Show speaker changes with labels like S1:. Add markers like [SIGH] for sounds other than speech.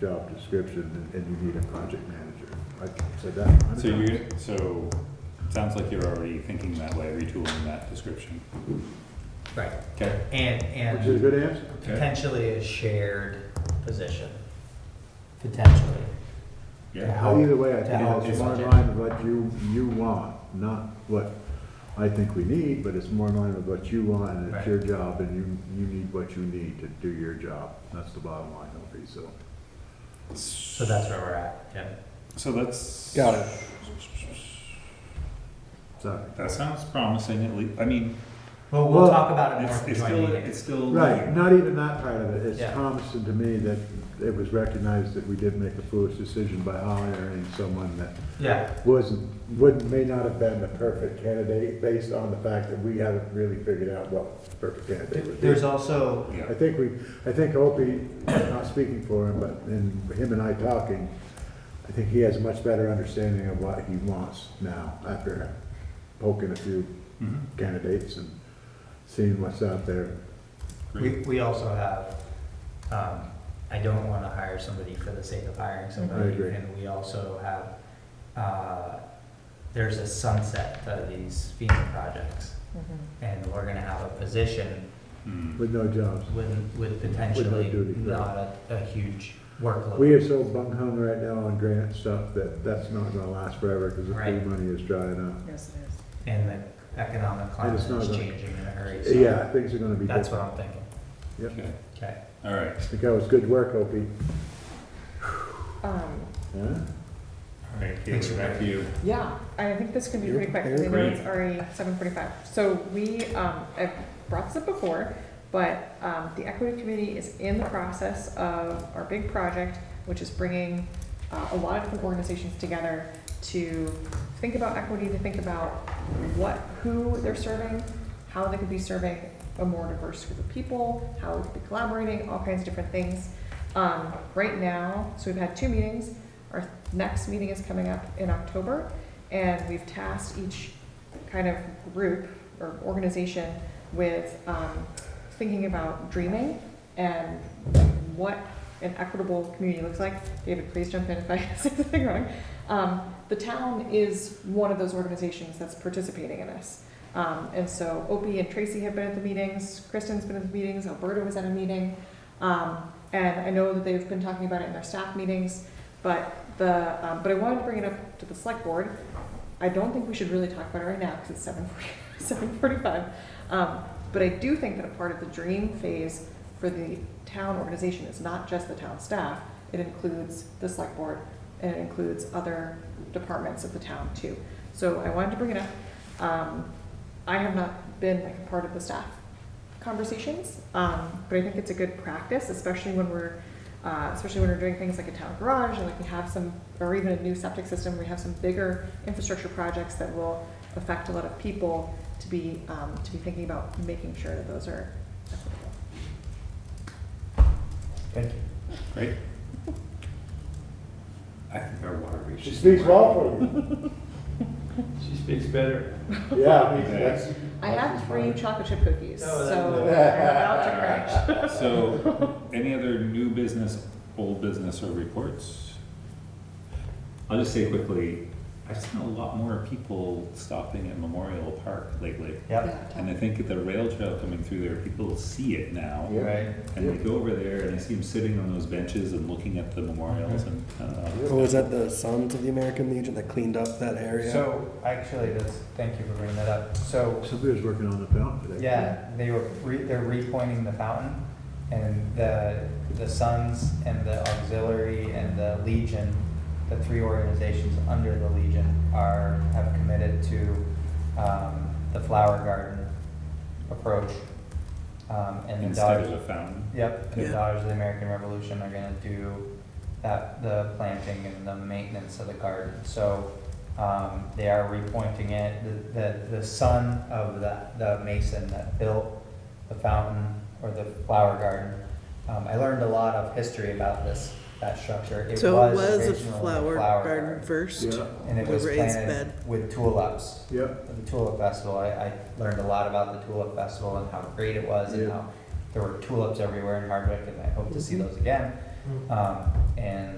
S1: job description, and and you need a project manager. I said that. a hundred
S2: So
S1: times.
S2: you, so, it sounds like you're already thinking that way, retooling that description.
S3: Right,
S2: Okay.
S3: and,
S1: Which is a
S3: and
S1: good answer.
S3: potentially a shared position, potentially. to
S2: Yeah.
S3: help-
S1: Either way, I
S3: to
S1: think
S3: help
S1: it's more in
S3: budget.
S1: line with what you, you want, not what I think we need, but it's more in line with what you want, and it's
S3: Right.
S1: your job, and you, you need what you need to do your job. That's the bottom line, Opie, so.
S3: So that's where we're at, yeah.
S2: So that's.
S4: Got it.
S1: Sorry.
S2: That sounds promising, at least, I mean,
S3: Well, we'll
S1: Well,
S3: talk about it more
S2: it's,
S3: at the
S2: it's
S3: joint
S2: still,
S3: meeting.
S2: it's still.
S1: Right, not even that part of it. It's
S3: Yeah.
S1: promising to me that it was recognized that we did make a foolish decision by hiring someone that
S3: Yeah,
S1: wasn't, would, may not have been the perfect candidate based on the fact that we haven't really figured out what the perfect candidate would be.
S3: there's also,
S2: Yeah.
S1: I think we, I think Opie, not speaking for him, but in him and I talking, I think he has a much better understanding of what he wants now after poking a few
S2: Mhm.
S1: candidates and seeing what's out there.
S3: we, we also have, um, I don't wanna hire somebody for the sake of hiring somebody.
S1: agree.
S3: And we also have, uh, there's a sunset to these FEMA projects. And we're gonna have a position
S2: Mm.
S1: With no jobs.
S3: with, with potentially
S1: duty, yeah.
S3: not a, a huge workload.
S1: We are so bung hung right now on grant stuff that that's not gonna last forever because the free
S3: Right.
S1: money is drying up.
S4: Yes, it is.
S3: And the economic climate
S1: it's not
S3: is
S1: gonna-
S3: changing in a hurry, so.
S1: Yeah, things are gonna be
S3: That's
S1: different.
S3: what I'm thinking,
S1: Yep.
S2: Okay,
S3: okay.
S2: all right.
S1: I think that was good work, Opie.
S4: Um,
S1: Huh?
S2: All right,
S3: Thanks
S2: Kayla,
S3: for
S2: back to you.
S4: yeah, and I think this can be
S1: You're
S4: pretty quick, because I know
S2: prepared.
S4: it's already seven forty-five. So we, um, I've brought this up before, but, um, the equity committee is in the process of our big project, which is bringing, uh, a lot of different organizations together to think about equity, to think about what, who they're serving, how they could be serving a more diverse group of people, how we could be collaborating, all kinds of different things. Um, right now, so we've had two meetings. Our next meeting is coming up in October, and we've tasked each kind of group or organization with um, thinking about dreaming and what an equitable community looks like. David, please jump in if I [LAUGHS] say something wrong. Um, the town is one of those organizations that's participating in this. Um, and so Opie and Tracy have been at the meetings, Kristen's been at the meetings, Alberta was at a meeting. Um, and I know that they've been talking about it in their staff meetings, but the, um, but I wanted to bring it up to the select board. I don't think we should really talk about it right now because it's seven forty, [LAUGHS] seven forty-five. Um, but I do think that a part of the dream phase for the town organization is not just the town staff. It includes the select board and it includes other departments of the town too. So I wanted to bring it up. Um, I have not been like a part of the staff conversations, um, but I think it's a good practice, especially when we're, uh, especially when we're doing things like a town garage and like we have some, or even a new septic system, we have some bigger infrastructure projects that will affect a lot of people to be, um, to be thinking about making sure that those are equitable.
S3: Thank you.
S2: Great. I think our water reach.
S1: She speaks well for you.
S5: She speaks better.
S1: Yeah, I mean,
S2: Okay.
S1: that's.
S4: I have three chocolate chip cookies,
S3: No, that-
S4: so I'm
S1: that-
S4: about to crash.
S2: So, any other new business, old business or reports? I'll just say quickly, I've seen a lot more people stopping at Memorial Park lately.
S3: Yep,
S2: And I think the rail trail coming through there, people see it now.
S1: Yeah.
S3: right,
S2: And they go over there and I see them sitting on those benches and looking at the memorials and, uh, I don't know.
S6: Oh, was that the Sons of the American Legion that cleaned up that area?
S3: so actually, that's, thank you for bringing that up, so,
S1: [LAUGHS] Somebody was working on the fountain today.
S3: yeah, they were, re- they're repointing the fountain, and the, the Sons and the Auxiliary and the Legion, the three organizations under the Legion are, have committed to, um, the flower garden approach, um, and the
S2: instead
S3: Dodge.
S2: of a fountain.
S3: Yep, and the
S6: Yeah.
S3: Daughters of the American Revolution are gonna do that, the planting and the maintenance of the garden. So, um, they are repointing it, The- the, the son of the, the mason that built the fountain or the flower garden. Um, I learned a lot of history about this, that structure. It
S7: So it was a
S3: originally
S7: flower garden first,
S1: Yeah,
S3: And it
S7: the
S3: was
S7: raised
S3: planted
S7: bed.
S3: with tulips
S1: yeah.
S3: at the Tulip Festival, I, I learned a lot about the Tulip Festival and how great it was and
S1: Yeah.
S3: how there were tulips everywhere in Hardwick and I hope to see those again. Um, and